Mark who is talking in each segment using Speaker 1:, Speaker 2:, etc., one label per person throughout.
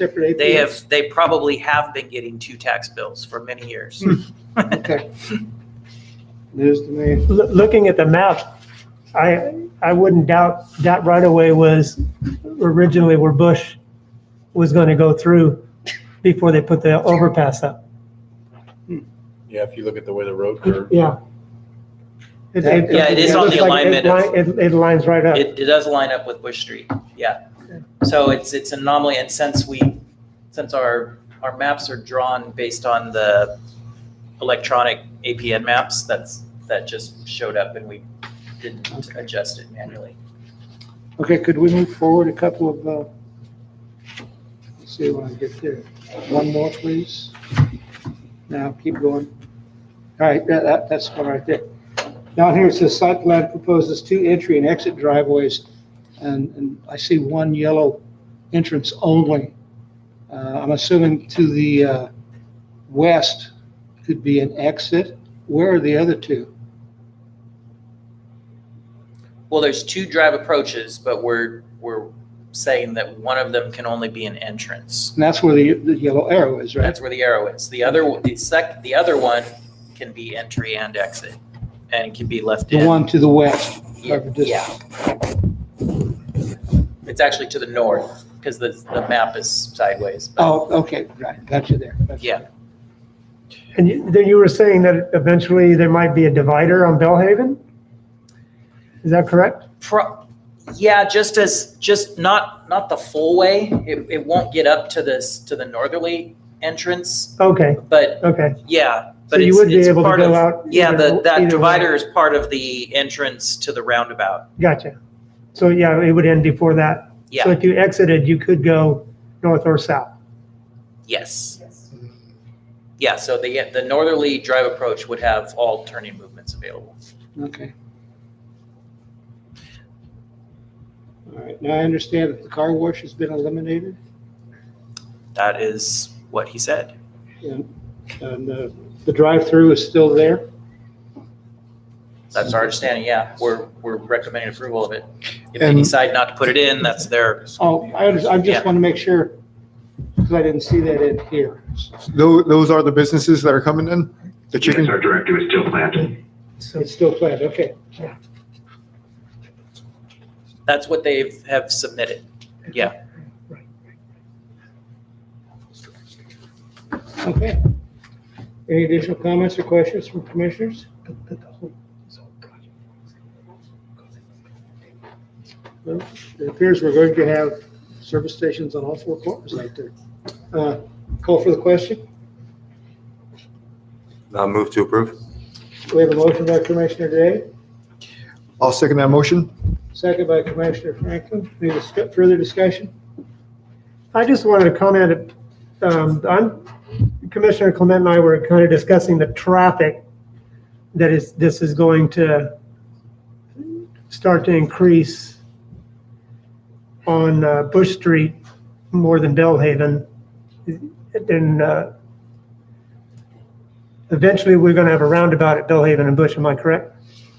Speaker 1: separate.
Speaker 2: They
Speaker 1: APS.
Speaker 2: have, they probably have been getting two tax bills for many years.
Speaker 1: Okay. News to me.
Speaker 3: Loo- looking at the map, I, I wouldn't doubt that right away was originally where Bush was going to go through before they put the overpass up.
Speaker 4: Yeah, if you look at the way the road curves.
Speaker 3: Yeah.
Speaker 1: That-
Speaker 2: Yeah, it is on the
Speaker 3: looks like it
Speaker 2: alignment
Speaker 3: li- It, it lines right up.
Speaker 2: It, it does line up with Bush Street, yeah. So it's, it's an anomaly, and since we, since our, our maps are drawn based on the electronic APN maps, that's, that just showed up and we didn't adjust it manually.
Speaker 1: Okay, could we move forward a couple of, uh, let's see when I get there. One more, please. Now, keep going. All right, that, that- that's one right there. Down here it says site plan proposes two entry and exit driveways. And, and I see one yellow entrance only. Uh, I'm assuming to the, uh, west could be an exit. Where are the other two?
Speaker 2: Well, there's two drive approaches, but we're, we're saying that one of them can only be an entrance.
Speaker 1: And that's where the, the yellow arrow is, right?
Speaker 2: That's where the arrow is. The other, one- the sec, the other one can be entry and exit, and can be left in.
Speaker 1: The one to the west.
Speaker 2: Yeah,
Speaker 1: of this-
Speaker 2: yeah. It's actually to the north, because the, the map is sideways. but-
Speaker 1: Oh, okay, right, got you there. Got you.
Speaker 2: Yeah,
Speaker 3: And you- then you were saying that eventually there might be a divider on Bellhaven? Is that correct?
Speaker 2: pro, yeah, just as, just not, not the full way, it, it won't get up to this, to the northerly entrance,
Speaker 3: Okay,
Speaker 2: but
Speaker 3: okay.
Speaker 2: yeah,
Speaker 3: So
Speaker 2: but
Speaker 3: you
Speaker 2: it's,
Speaker 3: would be
Speaker 2: it's
Speaker 3: able to
Speaker 2: part
Speaker 3: go
Speaker 2: of,
Speaker 3: out.
Speaker 2: yeah,
Speaker 3: either-
Speaker 2: the,
Speaker 3: either
Speaker 2: that
Speaker 3: way.
Speaker 2: divider is part of the entrance to the roundabout,
Speaker 3: Gotcha. So yeah, it would end before that. So
Speaker 2: yeah,
Speaker 3: if you exited, you could go north or south.
Speaker 2: yes. Yeah, so the, the northerly drive approach would have all turning movements available.
Speaker 1: Okay. All right, now I understand that the car wash has been eliminated
Speaker 2: That is what he said.
Speaker 1: and, and uh, the drive-through is still there.
Speaker 2: That's our understanding, yeah. We're, we're recommending approval of it. If they
Speaker 5: And-
Speaker 2: decide not to put it in, that's their,
Speaker 1: Oh, I, under- I
Speaker 2: Yeah.
Speaker 1: just want to make sure, because I didn't see that in here.
Speaker 5: Those, those are the businesses that are coming in? The
Speaker 6: Yes,
Speaker 5: chicken?
Speaker 6: our directive is still planted.
Speaker 3: So
Speaker 1: It's still planned, okay.
Speaker 2: that's what they have submitted. Yeah.
Speaker 1: Okay. Any additional comments or questions from commissioners? Well, It appears we're going to have service stations on all four corners out there. Uh, Call for the question.
Speaker 7: Uh, move to approve?
Speaker 1: We have a motion by Commissioner Day,
Speaker 5: I'll second that motion.
Speaker 1: second by Commissioner Franklin. Any dis- further discussion?
Speaker 3: I just wanted to comment, um, on, Commissioner Clement and I were kind of discussing the traffic that is, this is going to start to increase on uh, Bush Street more than Bellhaven. And, uh, eventually we're going to have a roundabout at Bellhaven and Bush, am I correct?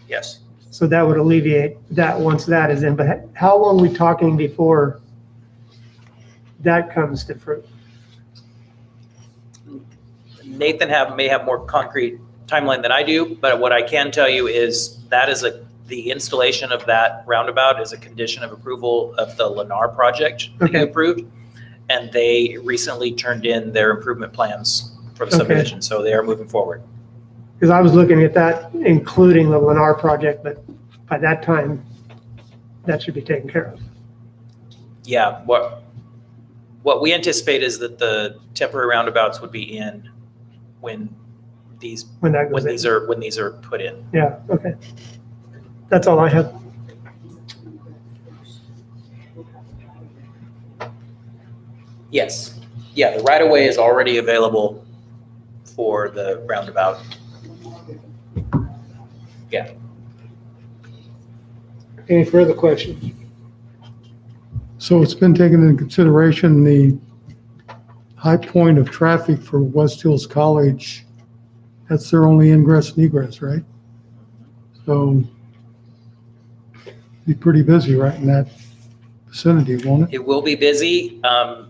Speaker 2: Yes.
Speaker 3: So that would alleviate that once that is in, but how long we talking before that comes to fruit?
Speaker 2: Nathan have, may have more concrete timeline than I do, but what I can tell you is that is a, the installation of that roundabout is a condition of approval of the Lennar project that they
Speaker 3: Okay.
Speaker 2: approved. And they recently turned in their improvement plans for the
Speaker 3: Okay.
Speaker 2: subdivision, so they are moving forward.
Speaker 3: Because I was looking at that, including the Lennar project, but by that time, that should be taken care of.
Speaker 2: Yeah, what, what we anticipate is that the temporary roundabouts would be in when these,
Speaker 3: When that
Speaker 2: when
Speaker 3: goes
Speaker 2: these
Speaker 3: in.
Speaker 2: are, when these are put in.
Speaker 3: Yeah, okay. That's all I have.
Speaker 2: Yes, yeah, the right of way is already available for the roundabout.
Speaker 1: Any further questions?
Speaker 8: So it's been taken into consideration, the high point of traffic for West Hills College, that's their only ingress and egress, right? So be pretty busy right in that vicinity, won't it?
Speaker 2: It will be busy. Um,